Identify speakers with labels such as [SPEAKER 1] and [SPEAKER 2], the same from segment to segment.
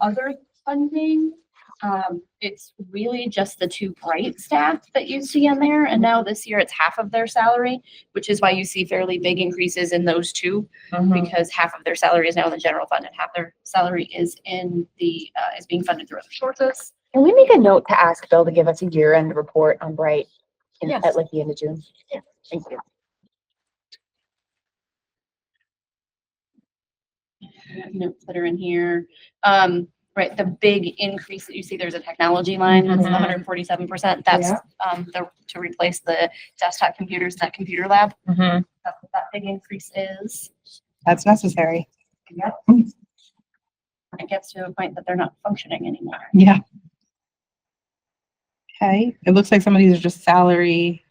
[SPEAKER 1] other funding. Um, it's really just the two bright staff that you see in there, and now this year it's half of their salary, which is why you see fairly big increases in those two,
[SPEAKER 2] Uh-huh. Mm-hmm.
[SPEAKER 1] because half of their salary is now in the general fund and half their salary is in the, uh, is being funded through other sources.
[SPEAKER 2] Can we make a note to ask Bill to give us a year-end report on Bright in-
[SPEAKER 3] Yes.
[SPEAKER 2] at like the end of June?
[SPEAKER 3] Yes.
[SPEAKER 2] Thank you.
[SPEAKER 1] Notes that are in here, um, right, the big increase that you see, there's a technology line, that's
[SPEAKER 3] Mhm.
[SPEAKER 1] hundred and forty-seven percent, that's, um, the, to replace the desktop computers, in that computer lab,
[SPEAKER 4] Mm-hmm.
[SPEAKER 1] that's what that big increase is.
[SPEAKER 4] That's necessary.
[SPEAKER 1] Yep. It gets to a point that they're not functioning anymore.
[SPEAKER 4] Yeah. Okay, it looks like some of these are just salary.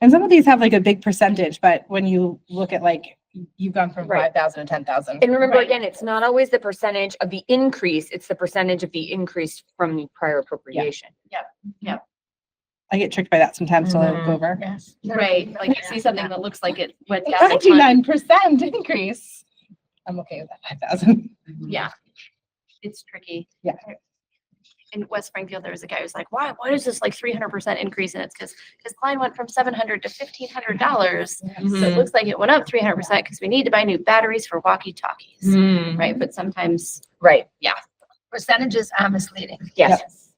[SPEAKER 4] And some of these have like a big percentage, but when you look at like, you've gone from
[SPEAKER 2] Right.
[SPEAKER 4] five thousand to ten thousand.
[SPEAKER 2] And remember
[SPEAKER 1] Right.
[SPEAKER 2] again, it's not always the percentage of the increase, it's the percentage of the increase from the prior appropriation.
[SPEAKER 4] I get tricked by that sometimes till I look
[SPEAKER 3] Mhm.
[SPEAKER 4] over.
[SPEAKER 3] Yes.
[SPEAKER 1] Right, like you see something that looks like it went down. a ton.
[SPEAKER 4] Twenty-nine percent increase. I'm okay with that, five thousand.
[SPEAKER 1] Yeah. It's tricky.
[SPEAKER 4] Yeah.
[SPEAKER 1] In West Springfield, there was a guy who's like, why, why is this like three hundred percent increase? And it's because his client went from seven hundred to fifteen hundred dollars.
[SPEAKER 2] Mm-hmm.
[SPEAKER 1] So it
[SPEAKER 3] Mm-hmm.
[SPEAKER 1] looks like it went up three hundred percent because we need to buy new batteries for
[SPEAKER 3] Mm-hmm.
[SPEAKER 1] walkie-talkies,
[SPEAKER 2] Mm-hmm.
[SPEAKER 1] right? But sometimes.
[SPEAKER 2] Right,
[SPEAKER 3] Percentages are misleading.
[SPEAKER 2] yes.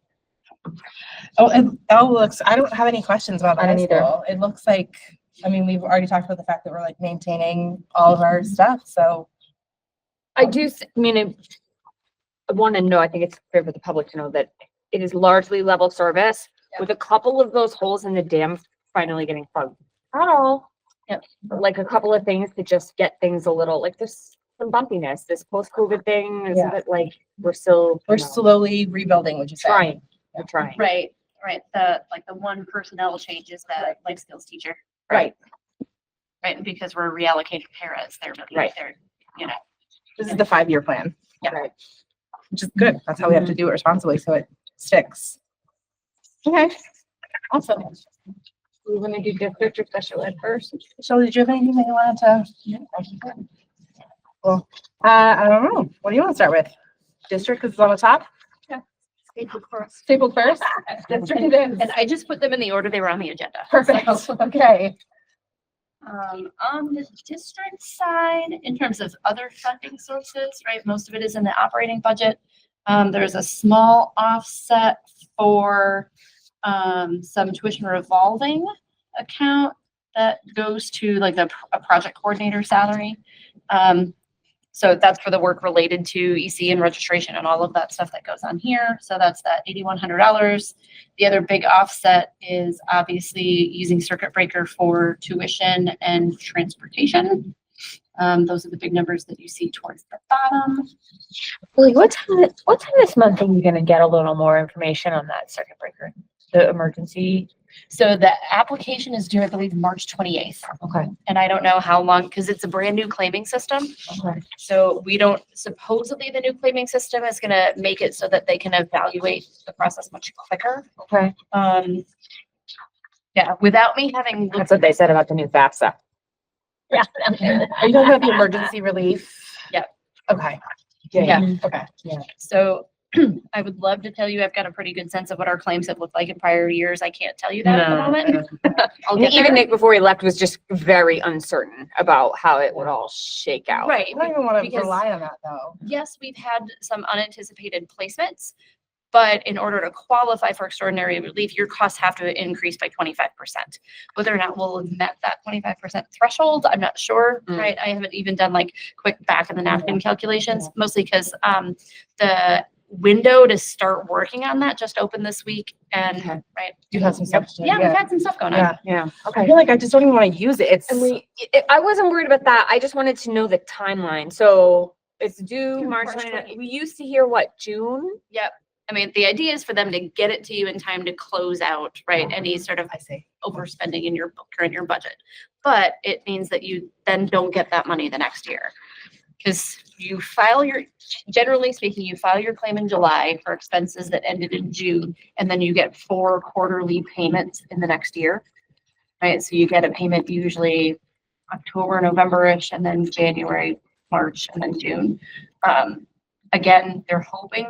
[SPEAKER 4] Oh, it all looks, I don't have any questions about the
[SPEAKER 2] I
[SPEAKER 4] high
[SPEAKER 2] don't either.
[SPEAKER 4] school. It looks like, I mean, we've already talked about the fact that we're like maintaining all of
[SPEAKER 2] Mm-hmm.
[SPEAKER 4] our stuff, so.
[SPEAKER 2] I do, s- I mean, I- I want to know, I think it's fair for the public to know that it is largely level service with a couple of those holes in the dam finally getting plugged. Not all.
[SPEAKER 1] Yep.
[SPEAKER 2] But like a couple of things to just get things a little, like there's some bumpiness, this post-COVID thing,
[SPEAKER 4] Yeah.
[SPEAKER 2] isn't it like, we're still.
[SPEAKER 4] We're
[SPEAKER 2] you know,
[SPEAKER 4] slowly rebuilding, would you say?
[SPEAKER 2] Trying, we're trying.
[SPEAKER 1] Right, right. The, like the one personnel change is the life skills teacher.
[SPEAKER 2] Right.
[SPEAKER 1] Right, and because we're reallocating paras, they're,
[SPEAKER 2] Right.
[SPEAKER 1] they're, you know,
[SPEAKER 4] This is the five-year plan,
[SPEAKER 1] Yeah.
[SPEAKER 2] Right.
[SPEAKER 4] which is good. That's how we have to do it responsibly, so it sticks. Okay, awesome.
[SPEAKER 2] We want to do district or special ed first.
[SPEAKER 4] Michelle, did you have anything that you wanted to? Well, uh, I don't know. What do you want to start with? District, because it's on the top? Stapled first? District it is.
[SPEAKER 1] and I just put them in the order they were on the agenda.
[SPEAKER 4] Perfect, okay.
[SPEAKER 1] Um, on the district side, in terms of other funding sources, right, most of it is in the operating budget. Um, there's a small offset for, um, some tuition revolving account that goes to like the, pr- a project coordinator salary. Um, so that's for the work related to EC and registration and all of that stuff that goes on here. So that's that eighty-one hundred dollars. The other big offset is obviously using circuit breaker for tuition and transportation. Um, those are the big numbers that you see towards the bottom.
[SPEAKER 2] Well, what time, thi- what time this month are you gonna get a little more information on that circuit breaker? The emergency?
[SPEAKER 1] So the application is due, I believe, March twenty-eighth.
[SPEAKER 2] Okay.
[SPEAKER 1] And I don't know how long, because it's a brand new claiming system.
[SPEAKER 2] Okay.
[SPEAKER 1] So we don't, supposedly the new claiming system is gonna make it so that they can evaluate the process much quicker.
[SPEAKER 2] Okay.
[SPEAKER 1] Um, yeah, without me having looked
[SPEAKER 2] That's what they said about the new FAFSA. Yeah.
[SPEAKER 4] Are you talking about the emergency relief?
[SPEAKER 1] Yep.
[SPEAKER 4] Okay,
[SPEAKER 1] Yeah.
[SPEAKER 4] okay.
[SPEAKER 1] So I would love to tell you I've got a pretty good sense of what our claims have looked like in prior years. I can't tell you that at the
[SPEAKER 2] No.
[SPEAKER 1] moment. I'll
[SPEAKER 2] And
[SPEAKER 1] get
[SPEAKER 2] even
[SPEAKER 1] there.
[SPEAKER 2] Nick before he left was just very uncertain about how it would all shake out.
[SPEAKER 1] Right.
[SPEAKER 4] I don't even want to
[SPEAKER 1] Because-
[SPEAKER 4] rely on that, though.
[SPEAKER 1] Yes, we've had some unanticipated placements, but in order to qualify for extraordinary relief, your costs have to increase by twenty-five percent. Whether or not we'll have met that twenty-five percent threshold, I'm not sure,
[SPEAKER 2] Mm.
[SPEAKER 1] right? I haven't even done like quick back of the napkin calculations, mostly because um the window to start working on that just opened this week and,
[SPEAKER 2] Okay.
[SPEAKER 1] right?
[SPEAKER 4] You have some stuff to do,
[SPEAKER 1] Yeah, we've
[SPEAKER 4] yeah.
[SPEAKER 1] had some stuff going on.
[SPEAKER 4] Yeah,
[SPEAKER 2] Yeah,
[SPEAKER 4] I
[SPEAKER 2] okay.
[SPEAKER 4] feel like I just don't even want to use it. It's,
[SPEAKER 2] And we, I- I wasn't worried about that. I just wanted to know the timeline. So it's due
[SPEAKER 1] Due
[SPEAKER 2] March
[SPEAKER 1] March
[SPEAKER 2] 29. We used to hear what, June?
[SPEAKER 1] I mean, the idea is for them to get it to you in time to close out, right, any sort of
[SPEAKER 4] Mm-hmm. I see.
[SPEAKER 1] overspending in your bu- current year budget. But it means that you then don't get that money the next year. Because you file your, generally speaking, you file your claim in July for expenses that ended in June, and then you get four quarterly payments in the next year. Right, so you get a payment usually October, November-ish, and then January, March, and then June. Um, Again, they're hoping